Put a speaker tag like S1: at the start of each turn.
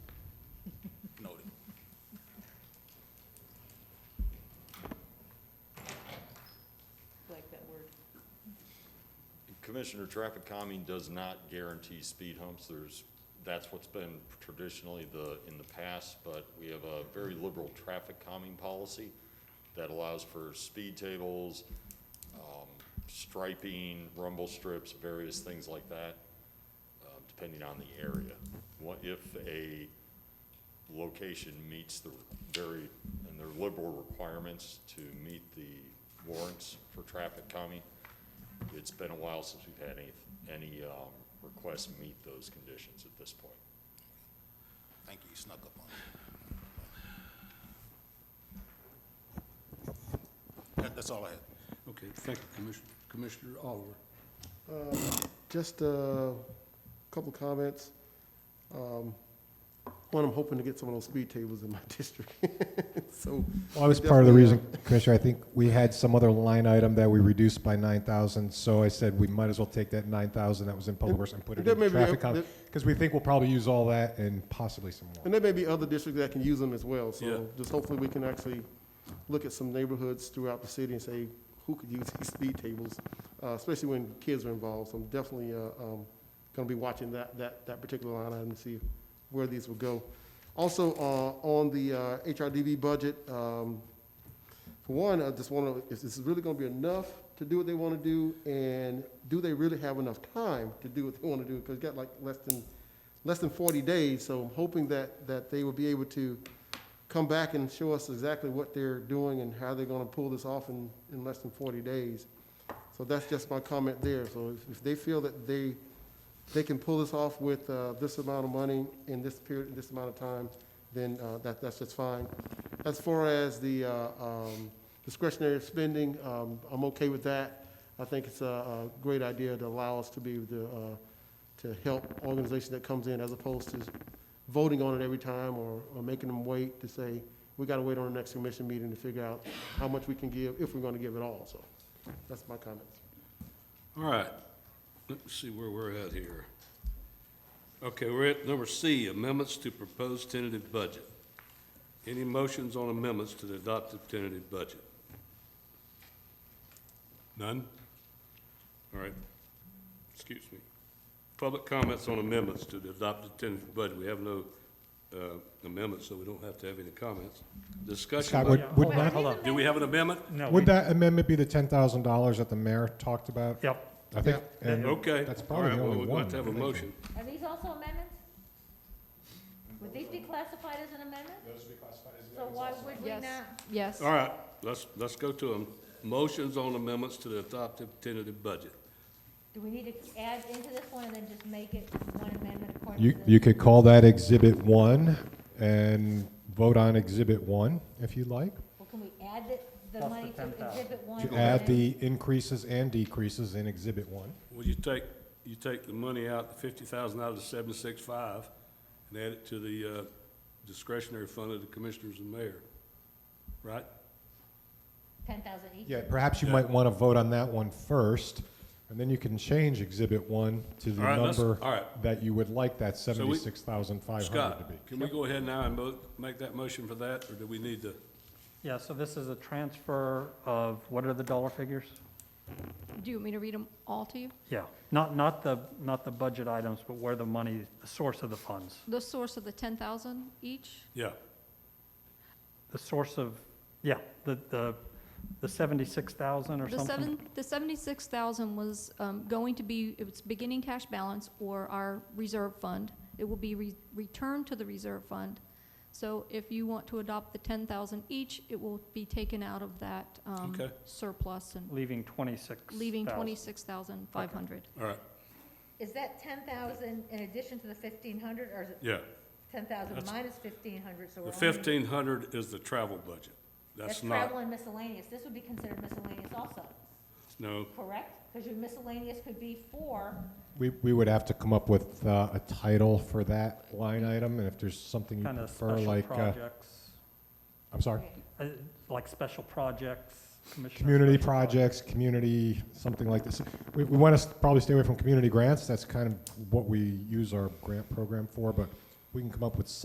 S1: Commissioner, traffic calming does not guarantee speed humps. There's, that's what's been traditionally the, in the past, but we have a very liberal traffic calming policy that allows for speed tables, um, striping, rumble strips, various things like that, uh, depending on the area. What if a location meets the very, and their liberal requirements to meet the warrants for traffic calming. It's been a while since we've had any, any um, requests meet those conditions at this point.
S2: Thank you, you snuck up on me. That- That's all I had.
S3: Okay, thank you, Commissioner, Commissioner Oliver.
S4: Just a couple comments. Um, One, I'm hoping to get some of those speed tables in my district. So,
S5: Well, that was part of the
S4: Definitely, uh,
S5: reason, Commissioner, I think we had some other line item that we reduced by nine thousand, so I said we might as well take that nine thousand that was in public works and put it
S4: That may
S5: in
S4: be-
S5: traffic con,
S4: that-
S5: because we think we'll probably use all that and possibly some more.
S4: and there may be other districts that can use them as well.
S3: Yeah.
S4: So just hopefully we can actually look at some neighborhoods throughout the city and say, who could use these speed tables? uh, Especially when kids are involved. So I'm definitely going to be watching that, that, that particular line item to see where these will go. Also, uh, on the uh, HRDB budget, um, For one, I just want to, is this really going to be enough to do what they want to do? And do they really have enough time to do what they want to do? Because you got like less than, less than 40 days, so I'm hoping that, that they will be able to come back and show us exactly what they're doing and how they're going to pull this off in, in less than 40 days. So that's just my comment there. So if, if they feel that they, they can pull this off with uh, this amount of money in this period, in this amount of time, then uh, that, that's just fine. As far as the uh, um, discretionary spending, um, I'm okay with that. I think it's a a great idea to allow us to be the, uh, to help organization that comes in as opposed to voting on it every time or or making them wait to say, we got to wait on the next commission meeting to figure out how much we can give, if we're going to give it all. So that's my comments.
S3: All right, let's see where we're at here. Okay, we're at number C, amendments to proposed tentative budget. Any motions on amendments to the adopted tentative budget? None? All right, excuse me. Public comments on amendments to the adopted tentative budget. We have no uh, amendments, so we don't have to have any comments. Discussion.
S5: Scott,
S3: by-
S5: would, would not,
S6: Hold on.
S3: Do we have an amendment?
S6: No.
S5: would
S6: we-
S5: that amendment be the ten thousand dollars that the mayor talked about?
S6: Yep.
S5: I think,
S6: Yeah.
S5: and
S3: Okay.
S5: That's
S3: All
S5: probably
S3: right,
S5: the
S3: well,
S5: only
S3: we're going
S5: one,
S3: to have a
S5: I think so.
S3: motion.
S7: Are these also amendments? Would these be classified as an amendment? Those would be classified as amendments So why would we
S8: Yes,
S7: not?
S8: yes.
S3: All right, let's, let's go to them. Motions on amendments to the adopted tentative budget.
S7: Do we need to add into this one and then just make it one amendment according to
S5: you,
S7: this?
S5: you could call that exhibit one and vote on exhibit one if you'd like.
S7: Well, can we add the, the
S6: Plus
S7: money
S6: the
S7: to
S6: 10,000.
S7: exhibit one?
S5: To
S7: and
S5: add
S7: then-
S5: the increases and decreases in exhibit one.
S3: Well, you take, you take the money out, the fifty thousand out of the seven-six-five, and add it to the uh, discretionary fund of the commissioners and mayor, right?
S7: Ten thousand each?
S5: Yeah, perhaps you might want to vote on that one first, and then you can change Exhibit 1 to the
S3: All right, let's-
S5: number
S3: all right.
S5: that you would like that
S3: we-
S5: 76,500 to be.
S3: Scott, can we go ahead now and mo- make that motion for that, or do we need to?
S6: Yeah, so this is a transfer of, what are the dollar figures?
S8: Do you want me to read them all to you?
S6: Yeah, not, not the, not the budget items, but where the money, the source of the funds.
S8: The source of the 10,000 each?
S3: Yeah,
S6: The source of, yeah, the, the, the 76,000 or
S8: The
S6: something?
S8: seven, the 76,000 was um, going to be, it was beginning cash balance or our reserve fund. It will be re- returned to the reserve fund. So if you want to adopt the 10,000 each, it will be taken out of that um,
S3: Okay.
S8: surplus and
S6: Leaving 26,000.
S8: leaving 26,500.
S3: all right,
S7: Is that ten thousand in addition to the fifteen hundred, or is it
S3: yeah.
S7: ten thousand
S3: That's-
S7: minus fifteen hundred, so we're
S3: The
S7: only?
S3: fifteen hundred is the travel budget. That's
S7: travel
S3: not,
S7: and miscellaneous, this would be considered miscellaneous also,
S3: no,
S7: correct? Because your miscellaneous could be for,
S5: We, we would have to come up with uh, a title for that line item, and if there's something you
S6: Kind of
S5: prefer,
S6: special
S5: like, uh,
S6: projects,
S5: I'm sorry,
S6: uh, like special projects, commissioner.
S5: community
S6: special projects.
S5: projects, community, something like this. We, we want to probably stay away from community grants, that's kind of what we use our grant program for, but we can come up with